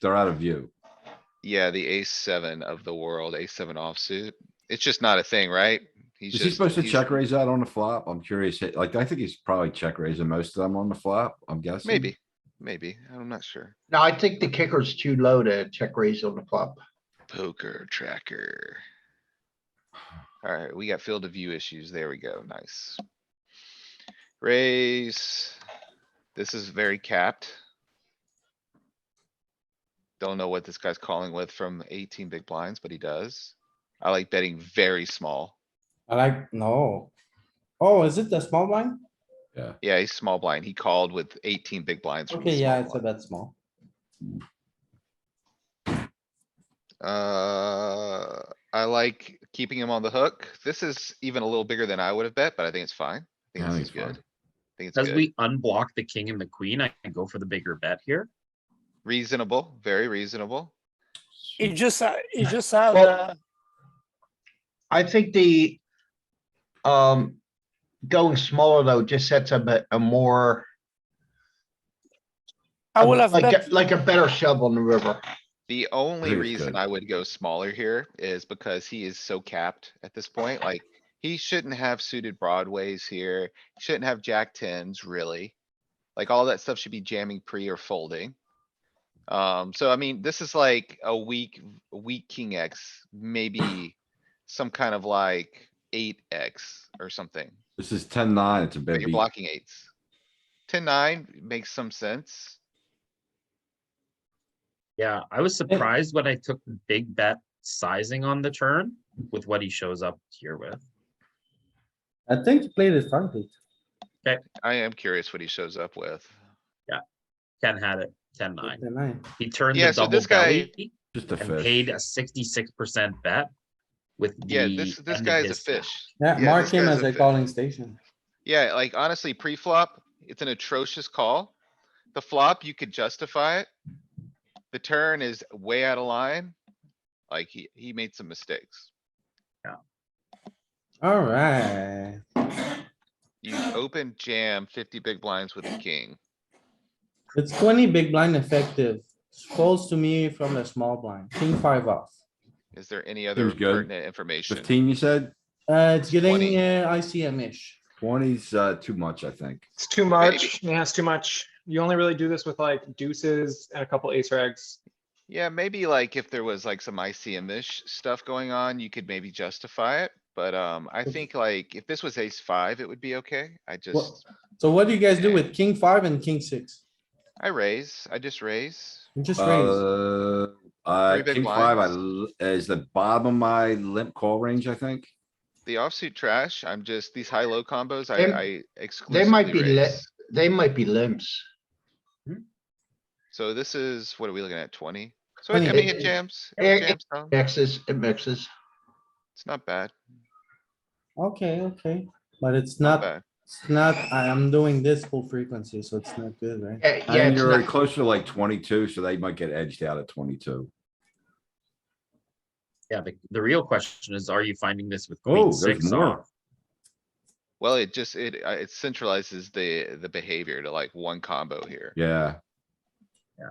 They're out of view. Yeah, the ace seven of the world, ace seven offsuit. It's just not a thing, right? He's Is he just- supposed to he's- check raise out on the flop? I'm curious. Like, I think he's probably check raising most of them on the flop, I'm guessing. Maybe, maybe. I'm not sure. No, I think the kicker's too low to check raise on the flop. Poker tracker. Alright, we got field of view issues. There we go. Nice. Raise. This is very capped. Don't know what this guy's calling with from eighteen big blinds, but he does. I like betting very small. I like, no. Oh, is it the small blind? Yeah, Yeah, he's small blind. He called with eighteen big blinds. from the Okay, yeah, small it's a blind. bit small. Uh, I like keeping him on the hook. This is even a little bigger than I would have bet, but I think it's fine. I Yeah, I think this is think it's good. I think it's As good. we unblock the king and the queen, I can go for the bigger bet here. Reasonable, very reasonable. He just, ha- he just had, Well- uh, I think the, um, going smaller though just sets up a, a more, I um, would have like, bet a- like a better shove on the river. The only think it's reason good. I would go smaller here is because he is so capped at this point, like. He shouldn't have suited broadways here, shouldn't have jack tens really. Like all that stuff should be jamming pre or folding. Um, so I mean, this is like a weak, weak king X, maybe some kind of like eight X or something, this is ten nine. It's a but big you're beat. blocking eights. Ten, nine makes some sense. Yeah, I was surprised when I took the big bet sizing on the turn with what he shows up here with. I think you played it fine, Pete. I am curious what he shows up with. Ken had it, ten nine. The nine. He turned Yeah, the so double this guy- belly Just a and paid fish. a sixty-six percent bet with the. Yeah, this, end this of guy's a his stack. fish. Yeah, this mark him guy's as a a fi- calling station. Yeah, like honestly, pre-flop, it's an atrocious call. The flop, you could justify it. The turn is way out of line. Like he, he made some mistakes. Alright, You open jam fifty big blinds with the king. it's twenty big blind effective. Falls to me from the small blind, king five off. Is there any other good. pertinent information? Fifteen, you said? Uh, it's getting 20. uh, ICM-ish. Twenty's, uh, too much, I think. It's too Maybe. much. Yeah, it's too much. You only really do this with like deuces and a couple ace or eggs. Yeah, maybe like if there was like some ICM-ish stuff going on, you could maybe justify it. But, um, I think like if this was ace five, it would be okay. I just, So what do you guys do with king five and king six? I raise, I just raise. You Just raise. Uh, uh, Three big king five, I, blinds. l- is the bottom of my limp call range, I think. The offsuit trash, I'm just, these high-low combos, They- I, I They might be, exclusively li- raise. they might be limps. So this is, what are we looking at, twenty? So I I 20. mean, it jams, Eh, it eh. jams down, Mixes, it mixes. it's not bad, Okay, okay, but it's not not, bad. it's not, I am doing this full frequency, so it's not good, right? Yeah, yeah, And it's you're not- closer to like twenty-two, so they might get edged out at twenty-two. Yeah, the, the real question is, are you finding this with Oh, queen there's six more. off? Well, it just, it, uh, it centralizes the, the behavior to like one combo here. Yeah. Yeah.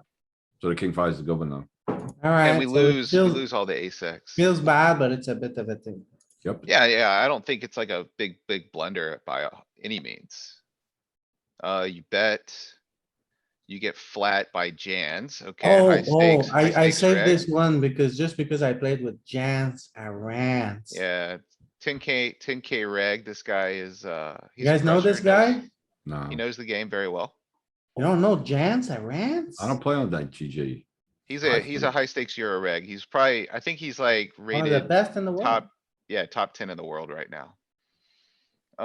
So the king five is the good one though. Alright. And we so it lose, we feels- lose all the ace X. Feels bad, but it's a bit of a thing. Yep. Yeah, yeah, I don't think it's like a big, big blunder by a- any means. Uh, you bet. You get flat by Jans, okay? Oh, high oh, stakes- high I, I stakes saved reg. this one because, just because I played with Jans, I ran. Yeah, ten K, ten K reg, this guy is, uh. he's You a guys know crusher, this he knows- guy? No, He knows the game very well. You don't know Jans, I ran? I don't play on that GG. He's I a, he's a see. high stakes Euro reg. He's probably, I think he's like One of the rated best in the world. top, yeah, top ten in the world right now.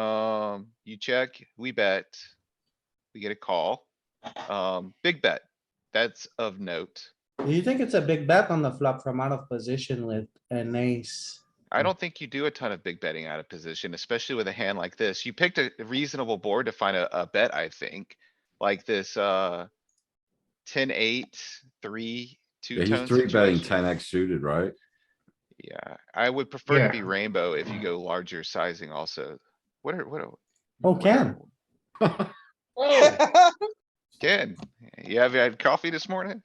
Um, you check, we bet, we get a call, um, big bet, that's of note. Do you think it's a big bet on the flop from out of position with an ace? Mm. I don't think you do a ton of big betting out of position, especially with a hand like this. You picked a reasonable board to find a, a bet, I think, like this, uh. Ten, eight, three, two Yeah, he's tone three betting situation. ten X suited, right? Yeah, I would prefer Yeah. to be rainbow if you go larger sizing also. What are, what are? Oh, what Ken. are- Ken, you have had coffee this morning?